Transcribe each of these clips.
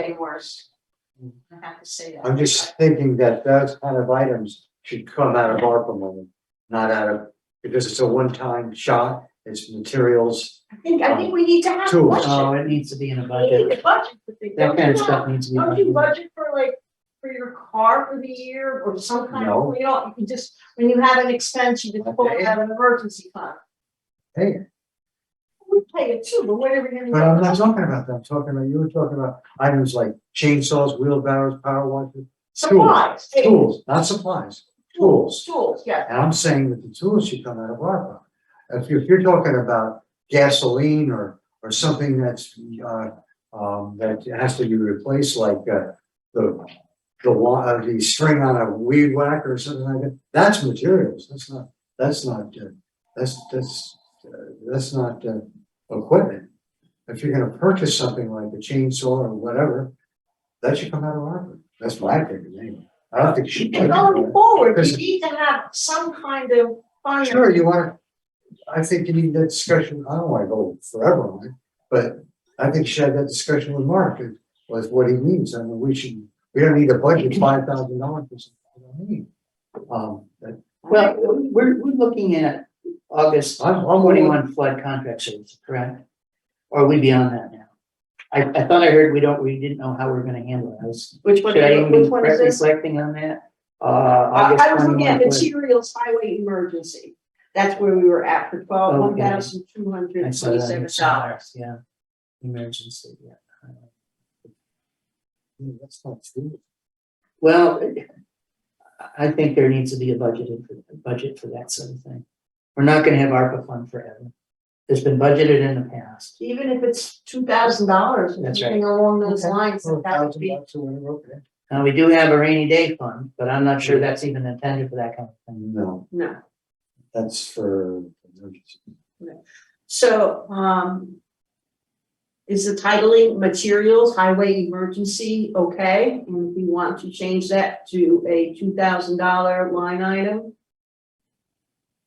getting worse. I have to say that. I'm just thinking that those kind of items should come out of ARPA money, not out of, because it's a one-time shot, it's materials I think, I think we need to have a too. budget. Oh, it needs to be in a We need a budget for things. That kind Don't of you stuff have- needs to be. Don't you in budget. budget for like, for your car for the year or some kind No. of, you know, you just, when you have an expense, you just pull Okay. it out of an emergency fund. Hey, We pay it too, but whatever you're but I'm not gonna. talking about that, I'm talking about, you were talking about items like chainsaws, wheelbarrows, power washers, Supplies. eh, tools, not supplies, tools. Tools, yeah. And I'm saying that the tools should come out of ARPA. If you're, if you're talking about gasoline or, or something that's, uh, um, that has to be replaced, like, uh, the, the wa, uh, the string on a weed whacker or something like that, that's materials, that's not, that's not, uh, that's, that's, uh, that's not, uh, equipment. If you're gonna purchase something like a chainsaw or whatever, that should come out of ARPA. That's my opinion, anyway. I don't think you should. And going forward, Because- you need to have some kind of fund. Sure, you wanna, I think you need that discussion, I don't wanna go forever on it, but I think you should have that discussion with Mark, and was what he means, I mean, we should, we don't need a budget five thousand dollars for something we don't need. Um, that- Well, we're, we're looking at August I'm, I'm willing, twenty-one flood contract service, correct? Or are we beyond that now? I, I thought I heard we don't, we didn't know how we we're gonna handle it. I was- Which Should I even be re- reflecting on that? Uh, I August I was looking at twenty-one. flood- materials highway emergency. That's where we were at for twelve, one Okay. thousand two I hundred saw that in twenty-seven somewhere, dollars. Yeah. Emergency, yeah. Hmm, that's not true. Well, I- I think there needs to be a budget, in- a budget for that sort of thing. We're not gonna have ARPA fund forever. It's been budgeted in the past. Even if it's two thousand dollars, or That's right. something along those Okay. lines, For a that would thousand be. bucks or whatever, okay. Now, we do have a rainy day fund, but I'm not sure that's even intended for that kind of thing. No, No, that's for emergency. so, um. Is the titling materials highway emergency okay? And if we want to change that to a two thousand dollar line item?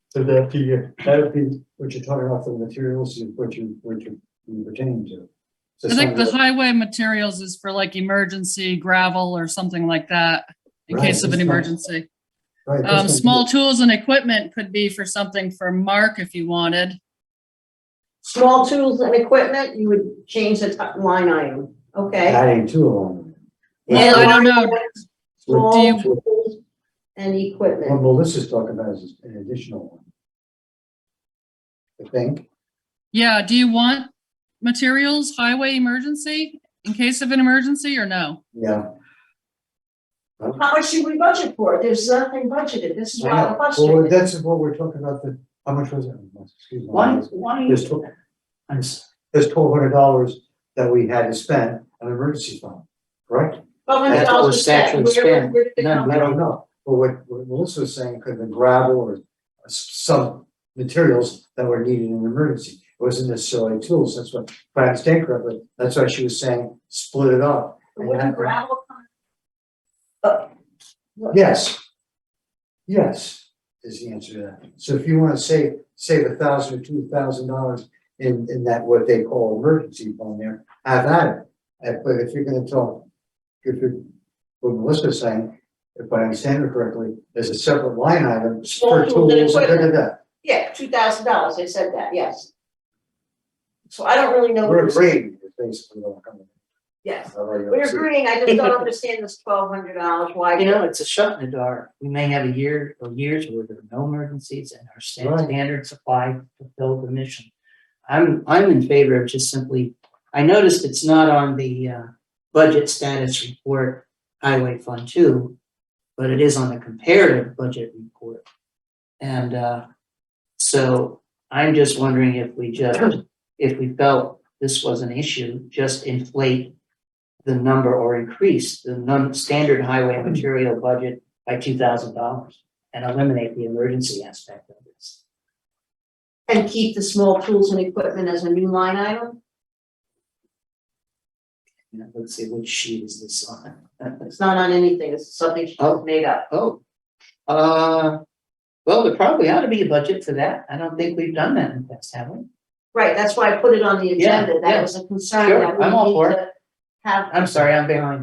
So that'd be, your- that'd be what you're talking about, the materials, is what you, what you you pertain to. So I think the something- highway materials is for like emergency gravel or something like that in Right, case of an that's fine. emergency. right, that's Um, something- small tools and equipment could be for something for Mark if you wanted. Small tools and equipment, you would change the ti- line item, okay? Adding to a line. Well, I don't know. Small Do you- tools and What equipment. Melissa's talking about is an additional one. I think, Yeah, do you want materials, highway emergency in case of an emergency or no? yeah. How much should we budget for? There's nothing budgeted. This is why I'm Well, questioning. that's what we're talking about, the, how much was it? Excuse Why, me. why? There's tw- I'm s- there's twelve hundred dollars that we had to spend on emergency fund, correct? But when That's it what all was was said, statute where, spent, where did they none come I from? don't know, but what, what Melissa was saying, could have been gravel or s- some materials that were needed in an emergency. It wasn't necessarily tools, that's what, if I understand correctly, that's why she was saying, split it up. and Where did have- gravel come? Yes. Yes, is the answer to that. So if you wanna save, save a thousand or two thousand dollars in, in that what they call emergency fund there, have at it. Uh, But if you're gonna talk, if you're, what Melissa's saying, if I understand her correctly, there's a separate line item for Small tools and tools, da, da, da, equipment. da. Yeah, two thousand dollars. They said that, yes. So I don't really know. We're who's- agreeing, is basically what I'm coming. Yes, I'll let you we're see. agreeing. I just don't understand this twelve hundred dollars, why. You know, it's a shot in the dark. We may have a year or years where there are no emergencies and our stand- Right. standards apply to fill the mission. I'm, I'm in favor of just simply, I noticed it's not on the, uh, budget status report, highway fund two, but it is on the comparative budget report. And, uh, so I'm just wondering if we just, if we felt this was an issue, just inflate the number or increase the non, standard highway material budget by two thousand dollars and eliminate the emergency aspect of this. And keep the small tools and equipment as a new line item? You know, let's see, which sheet is this on? It's not on anything. It's something she Oh. made up. Oh, uh, well, there probably ought to be a budget for that. I don't think we've done that in the past, have we? Right, that's why I put it on the Yeah, agenda, yeah. that was a concern Sure, that we I'm all need for it. to have I'm sorry, I'm behind.